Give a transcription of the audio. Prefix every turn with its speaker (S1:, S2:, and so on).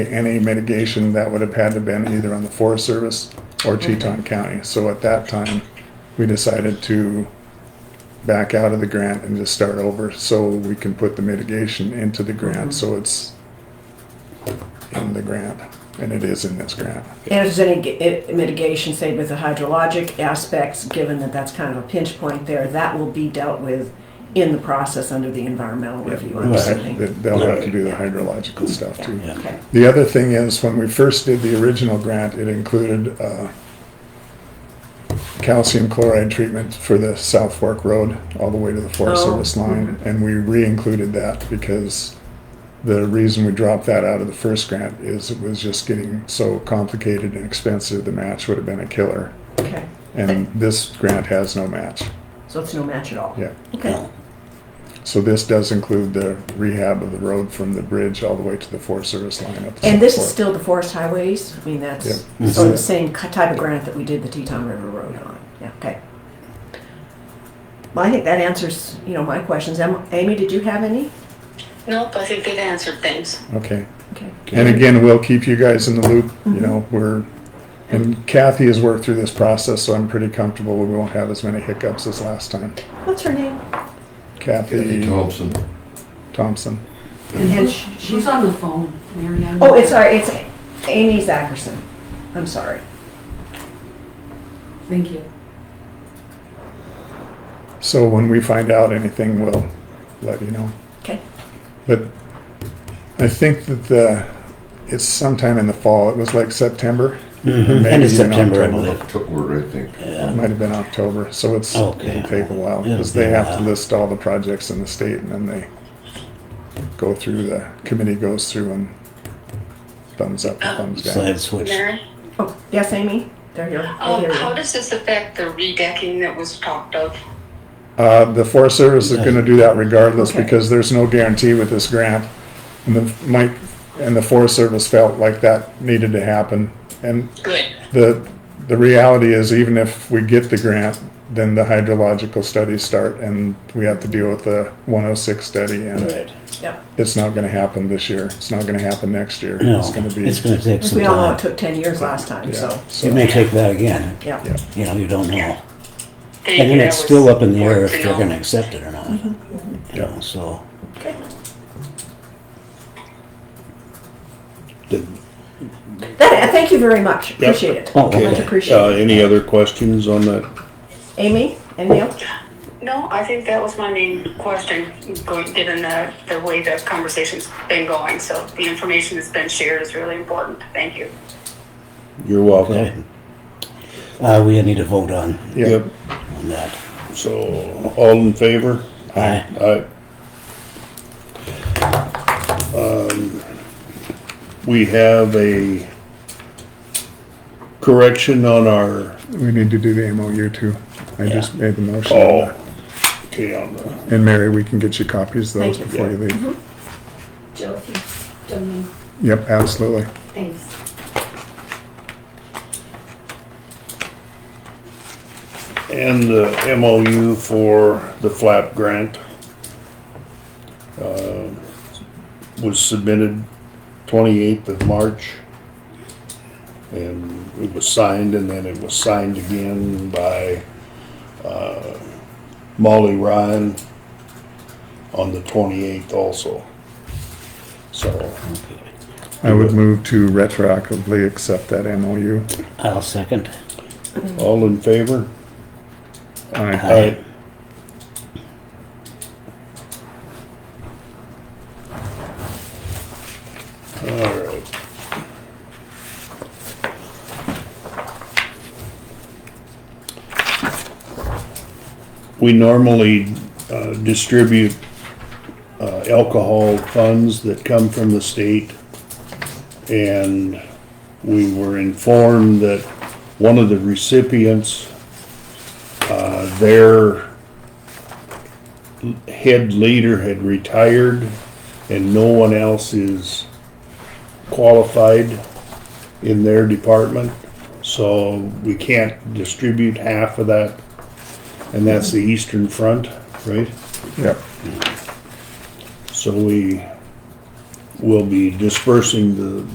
S1: any mitigation that would have had to been either on the Forest Service or Teton County. So at that time, we decided to back out of the grant and just start over so we can put the mitigation into the grant, so it's in the grant, and it is in this grant.
S2: And if there's any g- i- mitigation, say with the hydrologic aspects, given that that's kind of a pinch point there, that will be dealt with in the process under the environmental review, I'm
S1: They-
S2: assuming.
S1: They'll have to do the hydrological stuff too.
S2: Yeah, okay.
S1: The other thing is, when we first did the original grant, it included uh, calcium chloride treatment for the South Fork Road, all the way to the Forest
S2: Oh,
S1: Service line, and we re-included that because the reason we dropped that out of the first grant is it was just getting so complicated and expensive, the match would have been a killer.
S2: Okay,
S1: And this grant has no match,
S2: so it's no match at all?
S1: yeah.
S2: Okay,
S1: So this does include the rehab of the road from the bridge all the way to the Forest Service line up to
S2: and this is
S1: South Fork.
S2: still the forest highways? I mean, that's,
S1: Yeah.
S2: so the same ki- type of grant that we did the Teton River Road on, yeah, okay. Well, I think that answers, you know, my questions. Am- Amy, did you have any?
S3: Nope, I think they've answered things.
S1: Okay.
S2: Okay.
S1: And again, we'll keep you guys in the loop, you know, we're, and Kathy has worked through this process, so I'm pretty comfortable we won't have as many hiccups as last time.
S2: What's her name?
S1: Kathy
S4: Thompson.
S1: Thompson.
S2: And sh-
S5: She's on the phone, Marianne.
S2: Oh, it's, sorry, it's Amy Zacherson. I'm sorry.
S5: Thank you.
S1: So when we find out anything, we'll let you know.
S2: Okay.
S1: But I think that the, it's sometime in the fall, it was like September.
S6: Mhm,
S1: Maybe
S6: End of
S1: in
S6: September, I
S1: October.
S6: believe.
S4: October, I think.
S1: It
S6: Yeah.
S1: might have been October, so it's, it'll
S6: Okay.
S1: take a while, because
S6: It'll
S1: they
S6: be a
S1: have to
S6: while.
S1: list all the projects in the state, and then they go through, the committee goes through and thumbs up and thumbs down.
S6: Slide switch.
S3: Mary?
S2: Oh, yes, Amy? They're here. I
S3: Um,
S2: hear
S3: how
S2: you.
S3: does this affect the redecking that was talked of?
S1: Uh, the Forest Service is gonna do that regardless,
S2: Okay.
S1: because there's no guarantee with this grant. And the, Mike, and the Forest Service felt like that needed to happen, and
S3: Good.
S1: the, the reality is even if we get the grant, then the hydrological studies start, and we have to deal with the one oh six study and
S6: Right.
S2: Yep.
S1: it's not gonna happen this year, it's not gonna happen next year,
S6: No,
S1: it's gonna be.
S6: it's gonna take
S2: Because
S6: some
S2: we all know it
S6: time.
S2: took 10 years last time,
S1: yeah,
S2: so,
S1: so-
S6: It may take that again.
S2: yeah.
S1: Yeah.
S6: You know, you don't know.
S3: Thank
S6: And then
S3: you,
S6: it's
S3: that
S6: still
S3: was
S6: up in the air if
S3: important
S6: they're
S3: to know.
S6: gonna accept it or not.
S2: Mm-hmm.
S6: You know, so.
S2: Okay.
S7: Did-
S2: That, thank you very much. Appreciate it.
S6: Oh, okay.
S2: Much
S7: Uh,
S2: appreciated.
S7: any other questions on that?
S2: Amy and Neil?
S3: No, I think that was my main question, going, given the, the way the conversation's been going. So the information that's been shared is really important. Thank you.
S7: You're welcome.
S6: okay. Uh, we need to vote on,
S1: Yeah,
S6: on that.
S7: So, all in favor?
S6: Aye.
S7: Aye. Um, We have a correction on our,
S1: we need to do the MOU too, I just made the motion.
S7: oh, okay, on the.
S1: And Mary, we can get you copies of those
S2: Thank you. Mm-hmm.
S1: before you leave.
S5: Joe, if you don't mind,
S1: Yep, absolutely.
S5: thanks.
S7: and the MOU for the flap grant uh, was submitted 28th of March. And it was signed, and then it was signed again by uh, Molly Ryan on the 28th also. So,
S1: I would move to retroactively accept that MOU.
S6: I'll second.
S7: all in favor?
S1: I,
S6: Aye.
S7: All right. We normally uh, distribute uh, alcohol funds that come from the state. And we were informed that one of the recipients their head leader had retired and no one else is qualified in their department. So we can't distribute half of that. And that's the Eastern Front, right?
S1: yep,
S7: So we will be dispersing the,